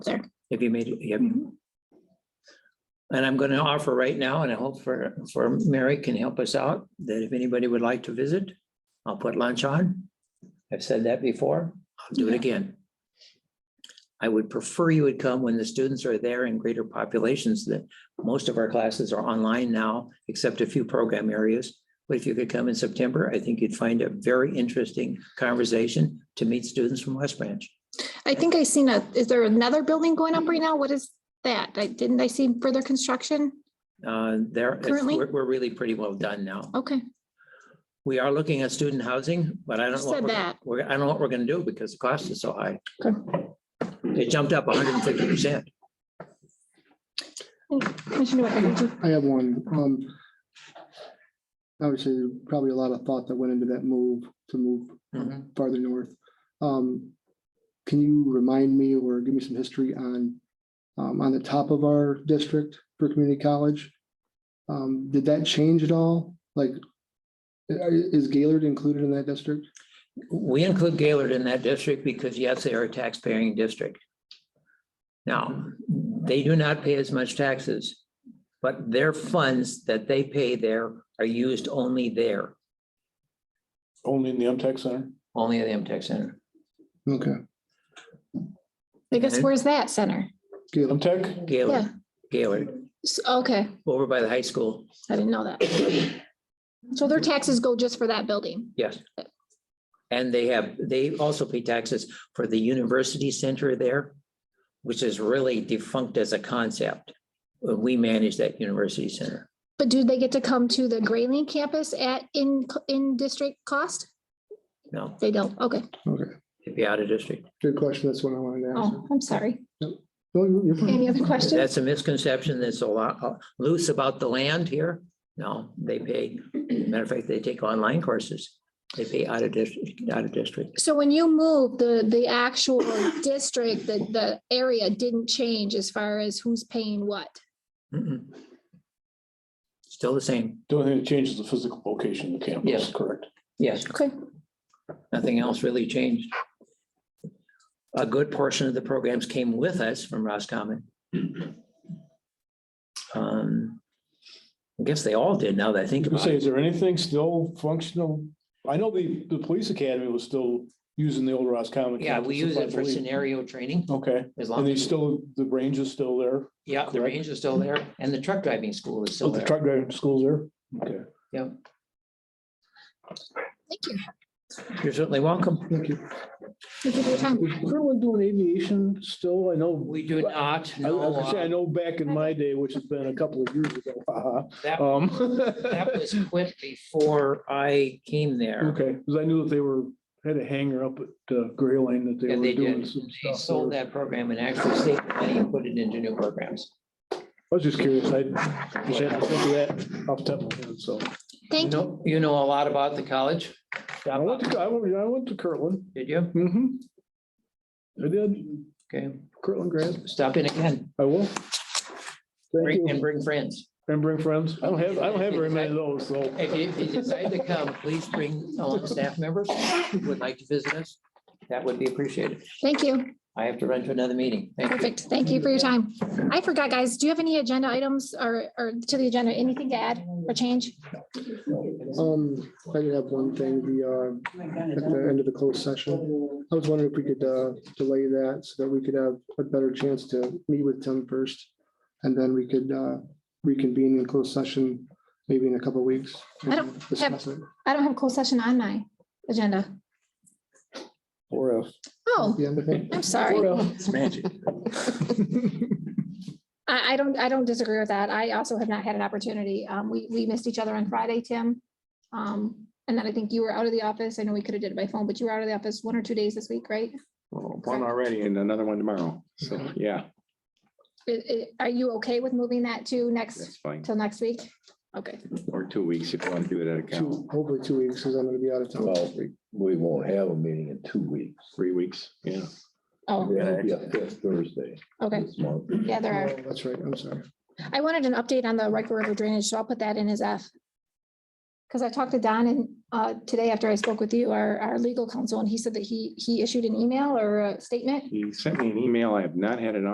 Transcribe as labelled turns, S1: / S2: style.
S1: there.
S2: Have you made, have you? And I'm going to offer right now, and I hope for, for Mary can help us out, that if anybody would like to visit, I'll put lunch on. I've said that before, I'll do it
S1: Yeah.
S2: again. I would prefer you would come when the students are there in greater populations that most of our classes are online now, except a few program areas. But if you could come in September, I think you'd find a very interesting conversation to meet students from West Branch.
S1: I think I seen a, is there another building going up right now? What is that? I, didn't I see further construction?
S2: Uh, there, it's-
S1: Currently?
S2: we're, we're really pretty well done now.
S1: Okay,
S2: We are looking at student housing, but I don't know. what
S1: Said
S2: we're-
S1: that.
S2: We're, I don't know what we're gonna do because the cost is so high.
S1: Okay.
S2: It jumped up hundred and fifty percent.
S1: Commissioner Newbecker, did you-
S3: I have one. Um, Obviously, probably a lot of thought that went into that move to move farther north. Um, Can you remind me or give me some history on, um, on the top of our district for community college? Um, Did that change at all? Like, i- is Gaylord included in that district?
S2: We include Gaylord in that district because yes, they are a taxpaying district. Now, they do not pay as much taxes, but their funds that they pay there are used only there,
S4: Only in the MTech Center?
S2: only at the M Tech Center.
S3: Okay,
S1: I guess
S2: Mhm.
S1: where's that center?
S3: Gaylord,
S4: MTech?
S1: Yeah,
S2: Gaylord, Gaylord,
S1: S- okay,
S2: over by the high school,
S1: I didn't know that. So their taxes go just for that building?
S2: yes. And they have, they also pay taxes for the university center there, which is really defunct as a concept. We manage that university center.
S1: But do they get to come to the Grayling campus at, in, in district cost?
S2: No,
S1: They don't, okay.
S3: okay.
S2: it'd be out of district.
S3: Good question. That's what I wanted to ask.
S1: Oh, I'm sorry.
S3: No, you're- you're fine.
S1: Any other questions?
S2: That's a misconception that's a lot uh, loose about the land here. No, they pay, matter of fact, they take online courses. They pay out of district, out of district.
S1: So when you moved, the, the actual district, the, the area didn't change as far as who's paying what?
S2: Mm-mm. Still the same.
S4: The only thing that changes the physical location of the campus.
S2: Yes.
S4: Correct.
S2: Yes,
S1: Okay,
S2: nothing else really changed. A good portion of the programs came with us from Roscommon. Um, I guess they all did now that I think
S4: You can
S2: about
S4: say,
S2: it.
S4: is there anything still functional? I know the, the police academy was still using the old Roscommon.
S2: Yeah, we
S4: campus, if
S2: use
S4: I
S2: it for
S4: believe.
S2: scenario training
S4: Okay, and
S2: as long
S4: they
S2: as,
S4: still, the range is still there,
S2: yeah, the range is still there and the truck driving school is
S4: So
S2: still
S5: Oh,
S4: the
S2: there.
S4: truck driving school's there? Okay.
S2: Yep.
S1: thank you.
S2: You're certainly welcome.
S3: Thank you.
S1: Thank you for your time.
S5: Is Kerwin doing aviation still? I know,
S2: We do not
S5: I
S2: know.
S5: was gonna say, I
S2: uh,
S5: know back in my day, which has been a couple of years ago. haha,
S2: That
S5: um,
S2: that was quit before I came there.
S5: Okay, because I knew that they were, had a hangar up at uh, Gray Lane that they
S2: Yeah,
S5: were
S2: they
S5: doing
S2: did.
S5: some
S2: They
S5: stuff.
S2: sold
S5: there.
S2: that program and actually saved money and put it into new programs.
S5: I was just curious. I just had to think of that off the top of my head, so.
S2: You
S1: Thank you.
S2: know, you know a lot about the college,
S5: I went to, I went, I went to Kirtland.
S2: did you?
S5: Mm-hmm. I did,
S2: Okay,
S5: Kirtland grad.
S2: stop in again
S5: I will. Thank
S2: bring- and
S5: you.
S2: bring friends.
S5: And bring friends. I don't have, I don't have very many of those, so.
S2: If you, if you decide to come, please bring along staff members who would like to visit us. That would be appreciated.
S1: Thank you.
S2: I have to run to another meeting. Thank you.
S1: Perfect. Thank you for your time. I forgot, guys, do you have any agenda items or, or to the agenda, anything to add or change?
S3: Um, I did have one thing, the, uh, at the end of the closed session. I was wondering if we could, uh, delay that so that we could have a better chance to meet with Tim first. And then we could, uh, reconvene in closed session, maybe in a couple of weeks.
S1: I don't
S3: and discuss it.
S1: I don't have closed session on my agenda.
S5: Or if.
S1: Oh,
S3: Yeah, I think-
S1: I'm sorry.
S5: oh. It's magic.
S1: I, I don't, I don't disagree with that. I also have not had an opportunity. Um, we, we missed each other on Friday, Tim. Um, and then I think you were out of the office. I know we could have did it by phone, but you were out of the office one or two days this week, right?
S6: Well, One already and another one tomorrow. So,
S7: Mhm.
S6: yeah,
S1: I- I- Are you okay with moving that to
S6: that's
S1: next,
S6: fine.
S1: till next week? Okay.
S6: Or two weeks if you want to do it at a count.
S3: Two, hopefully two weeks, because I'm gonna be out of town.
S7: Well, we, we won't have a meeting in two weeks.
S6: Three weeks, yeah.
S1: Oh,
S7: It'll be a fifth Thursday
S1: okay.
S7: this month.
S1: Yeah, there are.
S3: Oh, That's right, I'm sorry.
S1: I wanted an update on the Riker River drainage, so I'll put that in as F. Because I talked to Don and uh, today after I spoke with you, our, our legal counsel, and he said that he, he issued an email or a statement
S6: He sent me an email. I have not had an